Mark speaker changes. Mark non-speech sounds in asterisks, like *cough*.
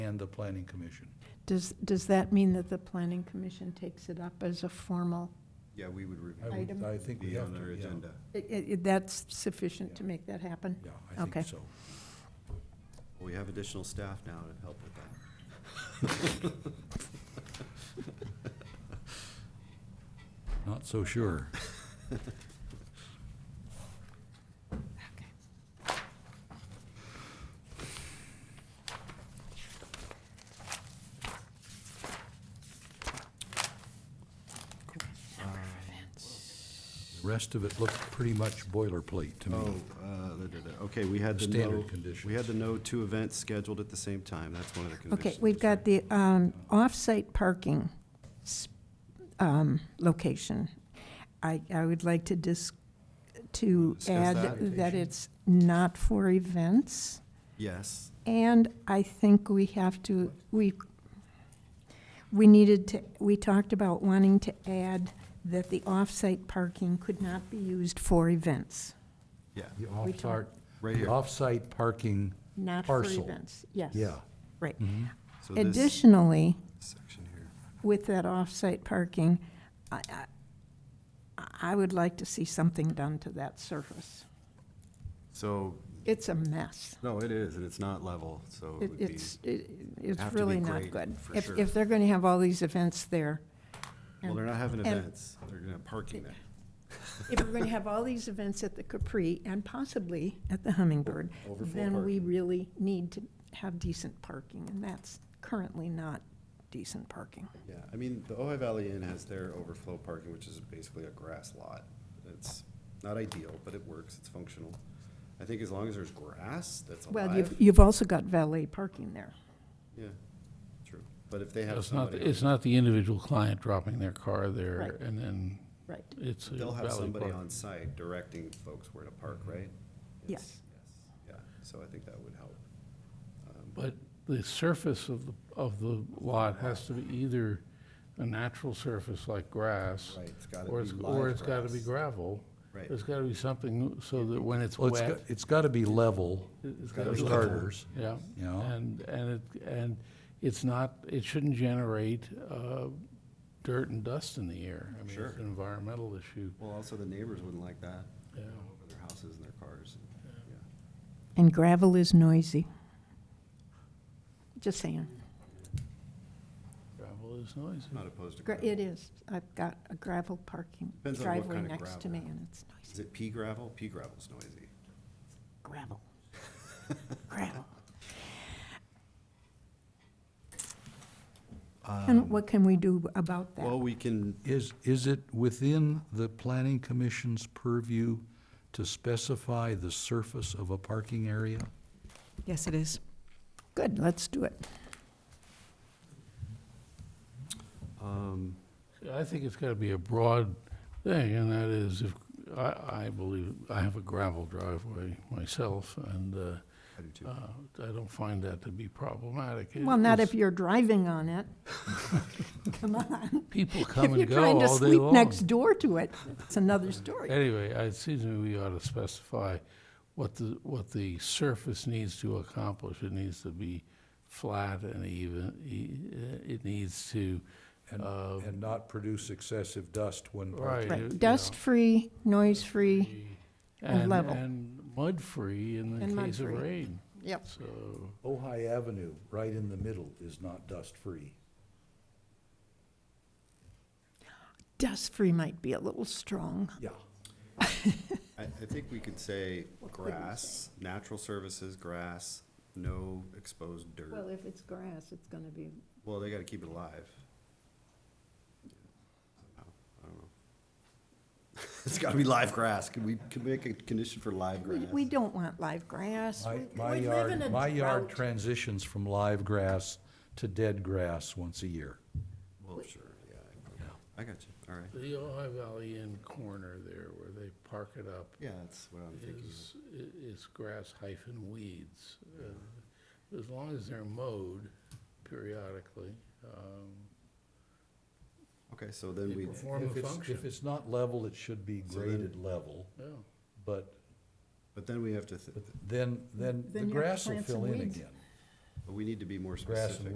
Speaker 1: and the planning commission.
Speaker 2: Does, does that mean that the planning commission takes it up as a formal?
Speaker 3: Yeah, we would review.
Speaker 1: I would-
Speaker 2: Item.
Speaker 1: I think we
Speaker 3: Be
Speaker 1: have
Speaker 3: on
Speaker 1: to,
Speaker 3: our
Speaker 1: yeah.
Speaker 3: agenda.
Speaker 2: I- i- That's sufficient to
Speaker 1: Yeah.
Speaker 2: make that happen?
Speaker 1: Yeah, I
Speaker 2: Okay.
Speaker 1: think so.
Speaker 3: We have additional staff now to help with that.
Speaker 1: Not so sure.
Speaker 2: Okay.
Speaker 1: The Rest of it looked pretty much boilerplate to
Speaker 3: Oh,
Speaker 1: me.
Speaker 3: uh, da, da, da. okay, we had the no.
Speaker 1: Standard
Speaker 3: We
Speaker 1: conditions.
Speaker 3: had the no two events scheduled at the same time. That's one of the conditions.
Speaker 2: Okay, we've got the um, off-site parking s- um, location. I, I would like to dis, to
Speaker 3: Discuss
Speaker 2: add
Speaker 3: that.
Speaker 2: that it's not for events.
Speaker 3: Yes,
Speaker 2: And I think we have to, we, we needed to, we talked about wanting to add that the off-site parking could not be used for events,
Speaker 3: yeah,
Speaker 1: The
Speaker 2: We talked-
Speaker 1: off-site,
Speaker 3: right
Speaker 1: the
Speaker 3: here.
Speaker 1: off-site parking,
Speaker 2: not for
Speaker 1: Parcel.
Speaker 2: events. Yes.
Speaker 1: yeah.
Speaker 2: Right.
Speaker 1: Mhm.
Speaker 3: So this
Speaker 2: Additionally,
Speaker 3: Section here.
Speaker 2: with that off-site parking, I, I, I would like to see something done to that surface.
Speaker 3: So,
Speaker 2: It's a mess.
Speaker 3: no, it is, and it's not level, so it
Speaker 2: It-
Speaker 3: would be.
Speaker 2: It's, it- it's
Speaker 3: have to be
Speaker 2: really not
Speaker 3: great,
Speaker 2: good.
Speaker 3: for
Speaker 2: If,
Speaker 3: sure.
Speaker 2: if they're going to have all these events there,
Speaker 3: Well, they're not having
Speaker 2: and-
Speaker 3: events. They're gonna have parking there.
Speaker 2: if we're going to have all these events at the Capri and possibly at the Hummingbird,
Speaker 3: Overflow
Speaker 2: then we really need to have decent parking, and that's currently not decent parking.
Speaker 3: Yeah, I mean, the Ojai Valley Inn has their overflow parking, which is basically a grass lot. It's not ideal, but it works, it's functional. I think as long as there's grass that's
Speaker 2: Well, you've,
Speaker 3: alive,
Speaker 2: you've also got valet parking there.
Speaker 3: yeah, true. But if they have
Speaker 4: It's not,
Speaker 3: somebody,
Speaker 4: it's
Speaker 3: on-
Speaker 4: not the individual client dropping their car there
Speaker 2: Right.
Speaker 4: and then
Speaker 2: Right.
Speaker 4: it's a
Speaker 3: they'll have
Speaker 4: Valley
Speaker 3: somebody
Speaker 4: Park. Mm-hmm.
Speaker 3: on site directing folks where to park, right?
Speaker 2: Yes.
Speaker 3: Yes, Yeah, so I think that would help.
Speaker 4: But the surface of, the of the lot has to be either a natural surface like grass.
Speaker 3: Right, it's gotta
Speaker 4: Or
Speaker 3: be
Speaker 4: it's,
Speaker 3: live
Speaker 4: or it's gotta be
Speaker 3: grass.
Speaker 4: gravel.
Speaker 3: Right.
Speaker 4: There's gotta be something so that when it's
Speaker 1: Well, it's got,
Speaker 4: wet.
Speaker 1: it's got to be level
Speaker 4: It's
Speaker 1: for
Speaker 4: gotta be level.
Speaker 1: starters.
Speaker 4: Yeah.
Speaker 1: You know?
Speaker 4: And, and it, and it's not, it shouldn't generate, uh, dirt and dust in the air. I mean,
Speaker 3: Sure.
Speaker 4: it's an environmental issue,
Speaker 3: Well, also the neighbors wouldn't like that,
Speaker 4: yeah.
Speaker 3: over their houses and their cars, yeah.
Speaker 2: And gravel is noisy. Just saying.
Speaker 4: Gravel is noisy.
Speaker 3: Not opposed to
Speaker 2: Gra-
Speaker 3: gravel.
Speaker 2: It is. I've got a gravel parking
Speaker 3: Depends on what
Speaker 2: driveway
Speaker 3: kind of
Speaker 2: next to me,
Speaker 3: gravel.
Speaker 2: and it's
Speaker 3: Is
Speaker 2: noisy.
Speaker 3: it pea gravel? Pea gravel's noisy.
Speaker 2: Gravel. Gravel. And what can we do about that?
Speaker 3: Well, we can,
Speaker 1: Is, is it within the planning commission's purview to specify the surface of a parking area?
Speaker 5: Yes, it is.
Speaker 2: Good, let's do it.
Speaker 3: um,
Speaker 4: I think it's gotta be a broad thing, and that is if, I, I believe, I have a gravel driveway myself, and, uh,
Speaker 3: I do too.
Speaker 4: uh, I don't find that to be problematic. It-
Speaker 2: Well, not if
Speaker 4: it's-
Speaker 2: you're driving on it. *laughs* Come on.
Speaker 4: People come
Speaker 2: If you're
Speaker 4: and go
Speaker 2: trying to
Speaker 4: all day
Speaker 2: sleep
Speaker 4: long.
Speaker 2: next door to it, it's another story.
Speaker 4: Anyway, it seems to me we ought to specify what the, what the surface needs to accomplish. It needs to be flat and even, e- it needs to,
Speaker 1: And,
Speaker 4: uh,
Speaker 1: and not produce excessive dust when
Speaker 4: right.
Speaker 1: parking?
Speaker 4: you- you
Speaker 2: Right,
Speaker 4: know.
Speaker 2: dust-free, noise-free, and
Speaker 4: and
Speaker 2: level.
Speaker 4: And mud-free in
Speaker 2: And
Speaker 4: the case of
Speaker 2: mud-free.
Speaker 4: rain,
Speaker 2: yep.
Speaker 4: so.
Speaker 1: Ojai Avenue, right in the middle, is not dust-free.
Speaker 2: Dust-free might be a little strong.
Speaker 1: Yeah.
Speaker 3: I, I think we could say grass, natural services, grass, no exposed dirt.
Speaker 2: Well, if it's grass, it's gonna be,
Speaker 3: Well, they gotta keep it alive. Somehow, I don't know. *laughs* It's gotta be live grass. Can we, can we make a condition for live
Speaker 2: we,
Speaker 3: grass?
Speaker 2: we don't want live grass.
Speaker 1: My,
Speaker 2: We-
Speaker 1: my
Speaker 2: we live in
Speaker 1: yard,
Speaker 2: a
Speaker 1: my yard
Speaker 2: drought.
Speaker 1: transitions from live grass to dead grass once a year.
Speaker 3: Well, sure, yeah. I- I got you, all right.
Speaker 4: The Ojai Valley Inn corner there, where they park it up,
Speaker 3: Yeah, that's what I'm thinking.
Speaker 4: is, i- is grass hyphen weeds. Uh, As long as they're mowed periodically, um,
Speaker 3: Okay, so then
Speaker 4: they
Speaker 3: we,
Speaker 4: perform
Speaker 1: If
Speaker 4: a
Speaker 1: it's- If
Speaker 4: function.
Speaker 1: it's not level, it should be
Speaker 3: So then-
Speaker 1: graded level,
Speaker 4: Yeah,
Speaker 1: but
Speaker 3: but then we have to, th-
Speaker 1: then, then the
Speaker 2: Then you have to
Speaker 1: grass will
Speaker 2: plant some
Speaker 1: fill in
Speaker 2: weeds.
Speaker 1: again.
Speaker 3: but But we need to be more
Speaker 1: Grass and
Speaker 3: specific.